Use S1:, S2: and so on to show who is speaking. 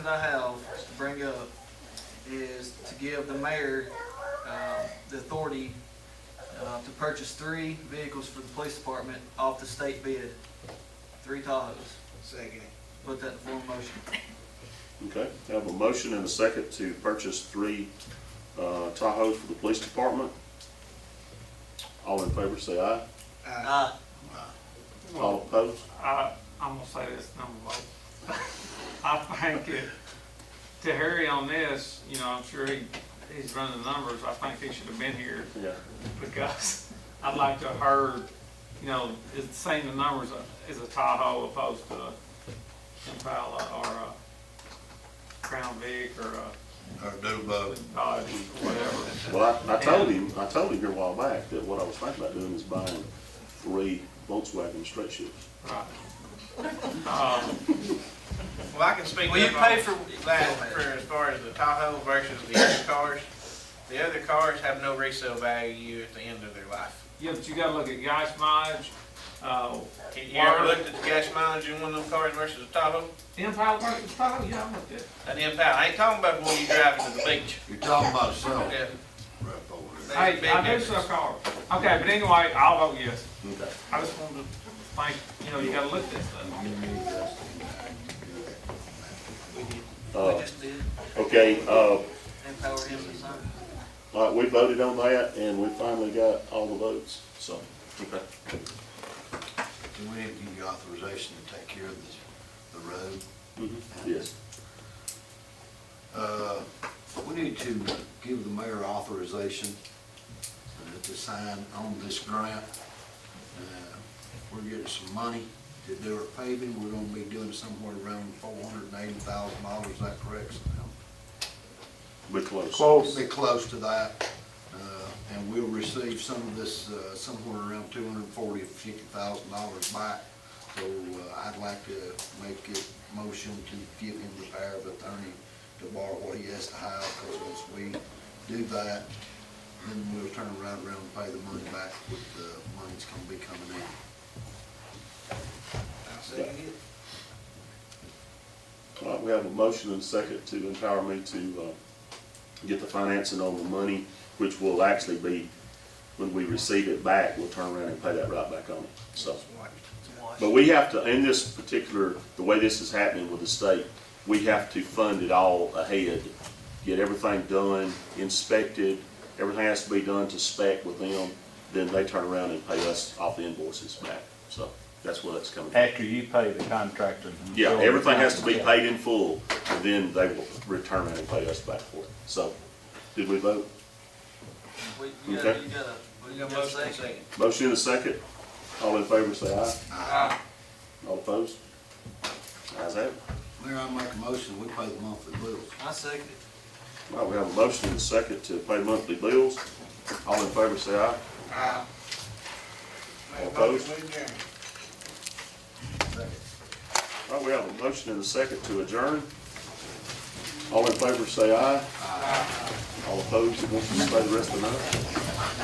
S1: that I have to bring up is to give the mayor, uh, the authority, uh, to purchase three vehicles for the police department off the state bid, three Tahoes.
S2: Second.
S1: Put that in form of motion.
S3: Okay, I have a motion and a second to purchase three uh, Tahoes for the police department. All in favor, say aye.
S4: Uh,
S2: Aye.
S1: Aye.
S3: All
S5: Well,
S3: opposed?
S5: I, I'm gonna say this number vote. I think it, to Harry on this, you know, I'm sure he, he's running the numbers, I think he should have been here
S3: Yeah.
S5: because I'd like to have heard, you know, is saying the numbers is a Tahoe opposed to a Impala or a Crown Vic or a
S6: or do both.
S5: Dodge or whatever.
S3: Well, I, I told him, I told him here a while back that what I was thinking about doing is buying three Volkswagen straight shifts.
S5: Right. Um,
S4: Well, I can speak up
S1: Will you pay for-
S4: on that for as far as the Tahoe versus the other cars. The other cars have no resale value at the end of their life.
S5: Yeah, but you gotta look at gas mileage, uh,
S4: You ever
S5: Why?
S4: looked at the gas mileage in one of them cars versus a Tahoe?
S5: Impala versus Tahoe, yeah, I looked at it.
S4: An impound, I ain't talking about when you driving to the beach.
S6: You're talking about self
S4: Yeah,
S6: right over there.
S4: that's a
S5: Hey,
S4: big
S5: I do
S4: difference.
S5: sell cars. Okay, but anyway, I'll vote yes.
S3: Okay.
S5: I just wanted to think, you know, you gotta look at this stuff.
S1: We
S3: Uh,
S1: just did,
S3: okay, uh,
S1: empower him to sign.
S3: all right, we voted on that and we finally got all the votes, so. Okay.
S6: Do we need to give you authorization to take care of this, the road?
S3: Mhm. Yes.
S6: Uh, we need to give the mayor authorization uh, to sign on this grant. Uh, We're getting some money to do our paving, we're gonna be doing somewhere around four hundred and eighty thousand dollars, is that correct? Sam?
S3: We're close.
S6: Be close to that, uh, and we'll receive some of this, uh, somewhere around two hundred and forty, fifty thousand dollars back. So uh, I'd like to make a motion to give him the power of attorney to borrow what he has to have, because once we do that, then we'll turn right around and pay the money back with the money that's gonna be coming in.
S2: I'll second it.
S3: All right, Uh, we have a motion and a second to empower me to uh, get the financing on the money, which will actually be, when we receive it back, we'll turn around and pay that right back on it, so. But we have to, in this particular, the way this is happening with the state, we have to fund it all ahead, get everything done, inspected, everything has to be done to spec with them, then they turn around and pay us off the invoices back, so that's where that's coming from.
S7: After you pay the contractor.
S3: Yeah, everything has to be paid in full, and then they will return it and pay us back for it. So, did we vote?
S1: We, you gotta,
S3: Okay.
S1: you gotta,
S4: We
S1: we
S4: got
S1: gotta
S4: a motion and a
S1: second.
S4: second.
S3: Motion in a second. All in favor, say aye. All opposed? Ayes have it.
S6: Mayor, I make a motion, we pay the monthly bills.
S1: I second it.
S3: All right, we have a motion in a second to pay monthly bills. All in favor, say aye.
S4: Make a
S3: Opposed?
S4: motion, we adjourn.
S3: All right, we have a motion in a second to adjourn. All in favor, say aye. All opposed, you want to stay the rest of the night?